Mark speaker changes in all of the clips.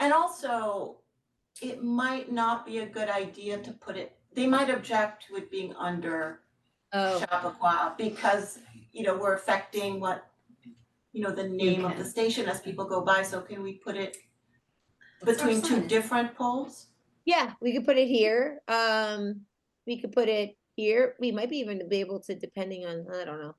Speaker 1: And also, it might not be a good idea to put it, they might object to it being under
Speaker 2: Oh,
Speaker 1: Chappaqua because, you know, we're affecting what, you know, the name of the
Speaker 2: can.
Speaker 1: station as people go by, so can we put it
Speaker 2: Let's throw
Speaker 1: between two
Speaker 2: signs.
Speaker 1: different poles?
Speaker 3: Yeah, we could put it here. Um, we could put it here. We might be even be able to, depending on, I don't know.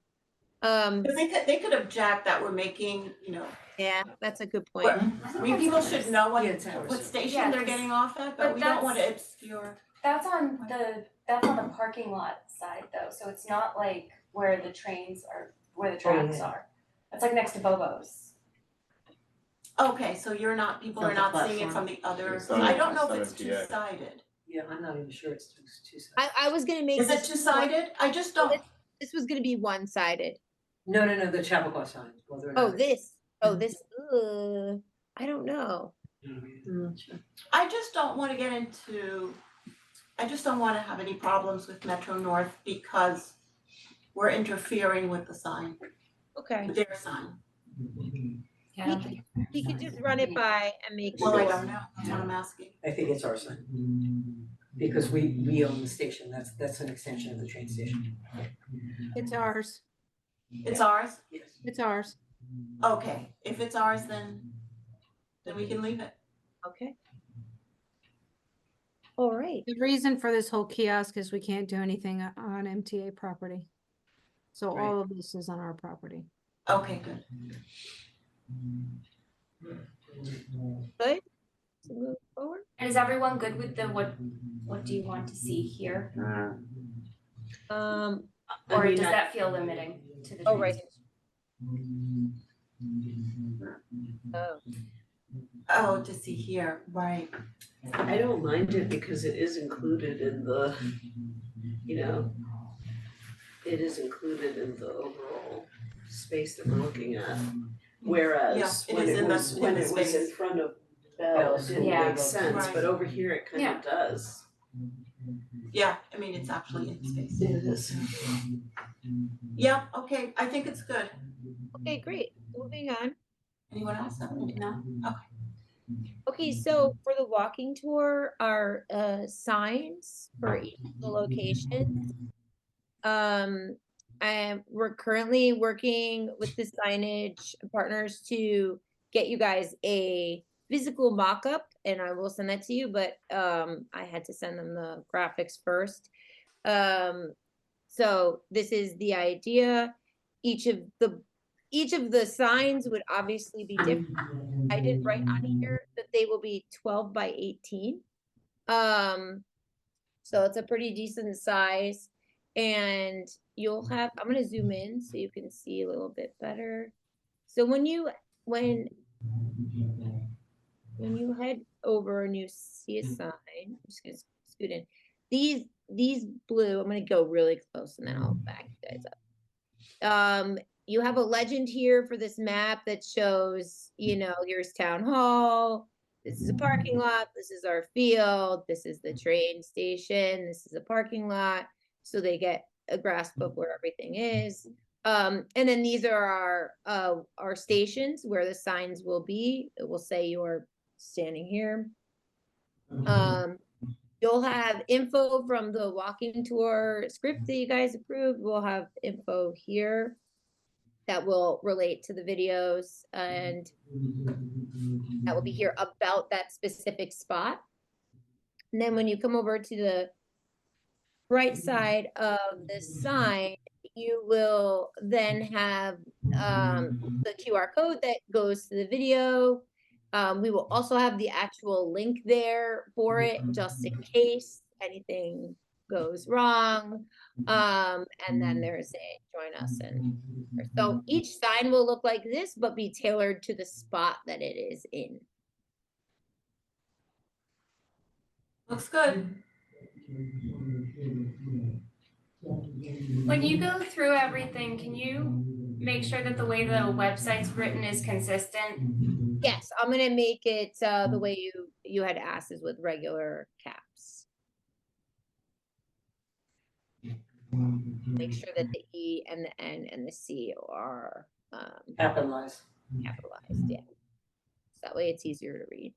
Speaker 3: Um,
Speaker 1: Because they could, they could object that we're making, you know,
Speaker 3: yeah, that's a good point.
Speaker 1: we're- I mean, people should know
Speaker 4: Yeah,
Speaker 1: what,
Speaker 4: it's ours.
Speaker 1: what station they're
Speaker 5: Yes.
Speaker 1: getting off at,
Speaker 5: But
Speaker 1: but we don't want to
Speaker 5: that's-
Speaker 1: obscure.
Speaker 5: That's on the, that's on the parking lot side though, so it's not like where the trains are, where
Speaker 4: Oh,
Speaker 5: the tracks are. It's like next to Bobo's.
Speaker 1: Okay, so you're not, people
Speaker 4: Not
Speaker 1: are
Speaker 4: the
Speaker 1: not seeing it from
Speaker 4: platform.
Speaker 1: the other,
Speaker 6: It's not
Speaker 1: I
Speaker 6: a-
Speaker 1: don't know if it's
Speaker 6: it's not a
Speaker 1: two-sided.
Speaker 6: PA.
Speaker 4: Yeah, I'm not even sure it's two, two sides.
Speaker 3: I, I was gonna make.
Speaker 1: Is it
Speaker 3: this-
Speaker 1: two-sided? I just don't,
Speaker 3: This was gonna be one-sided.
Speaker 4: No, no, no, the Chappaqua sign, whether or not.
Speaker 3: Oh,
Speaker 4: it's-
Speaker 3: this, oh,
Speaker 1: Mm-hmm.
Speaker 3: this, uh, I don't know.
Speaker 4: you know what I mean?
Speaker 1: I just don't wanna get into, I just don't wanna have any problems with Metro North because we're interfering with the sign,
Speaker 3: Okay.
Speaker 1: with their sign.
Speaker 2: Yeah, I
Speaker 3: We
Speaker 2: don't
Speaker 3: could-
Speaker 2: think-
Speaker 3: We could just run it by and make
Speaker 1: Well, I
Speaker 3: sure.
Speaker 1: don't know, that's what I'm asking.
Speaker 4: I think it's our sign. Because we, we own the station, that's, that's an extension of the train station.
Speaker 7: It's ours,
Speaker 1: It's ours?
Speaker 4: Yes.
Speaker 7: it's ours.
Speaker 1: Okay, if it's ours, then, then we can leave it.
Speaker 3: Okay. All right,
Speaker 7: The reason for this whole kiosk is we can't do anything o- on MTA property. So
Speaker 4: Right.
Speaker 7: all of this is on our property.
Speaker 1: Okay, good.
Speaker 3: so move forward.
Speaker 5: And is everyone good with the what, what do you want to see here?
Speaker 3: Um,
Speaker 4: I
Speaker 5: Or
Speaker 4: mean,
Speaker 5: does
Speaker 4: I-
Speaker 5: that feel limiting to the?
Speaker 3: oh,
Speaker 5: train
Speaker 3: right.
Speaker 5: station?
Speaker 3: Oh,
Speaker 1: Oh, to see here, right.
Speaker 4: I don't mind it because it is included in the, you know, it is included in the overall space that we're looking at. Whereas
Speaker 1: Yeah, it
Speaker 4: when
Speaker 1: is
Speaker 4: it
Speaker 1: in the-
Speaker 4: was,
Speaker 1: in
Speaker 4: when
Speaker 1: the
Speaker 4: it was in
Speaker 1: space.
Speaker 4: front of Bell, it didn't
Speaker 5: Oh, Yeah.
Speaker 4: make sense,
Speaker 1: Right.
Speaker 4: but over here it kind
Speaker 5: Yeah.
Speaker 4: of does.
Speaker 1: Yeah, I mean, it's actually in space.
Speaker 4: It is.
Speaker 1: Yeah, okay, I think it's good.
Speaker 3: okay, great, moving on.
Speaker 1: Anyone else? No?
Speaker 3: Okay, so for the walking tour, our uh signs for each of the locations. Um, and we're currently working with the signage partners to get you guys a physical mock-up and I will send that to you, but um I had to send them the graphics first. Um, so this is the idea. Each of the, each of the signs would obviously be different. I did write on here that they will be twelve by eighteen. Um, so it's a pretty decent size. And you'll have, I'm gonna zoom in so you can see a little bit better. So when you, when when you head over and you see a sign, I'm just gonna scoot in. These, these blue, I'm gonna go really close and then I'll back you guys up. Um, you have a legend here for this map that shows, you know, here's town hall. This is a parking lot. This is our field. This is the train station. This is a parking lot. So they get a grasp of where everything is. Um, and then these are our, uh, our stations where the signs will be. It will say you're standing here. Um, you'll have info from the walking tour script that you guys approved. We'll have info here that will relate to the videos and that will be here about that specific spot. And then when you come over to the right side of the sign, you will then have um, the QR code that goes to the video. Um, we will also have the actual link there for it, just in case anything goes wrong. Um, and then there's a join us and so each sign will look like this, but be tailored to the spot that it is in.
Speaker 1: Looks good.
Speaker 5: When you go through everything, can you make sure that the way the website's written is consistent?
Speaker 3: Yes, I'm gonna make it uh, the way you you had asked is with regular caps. Make sure that the E and the N and the C are um,
Speaker 4: Capitalized.
Speaker 3: capitalized. Yeah, so that way it's easier to read.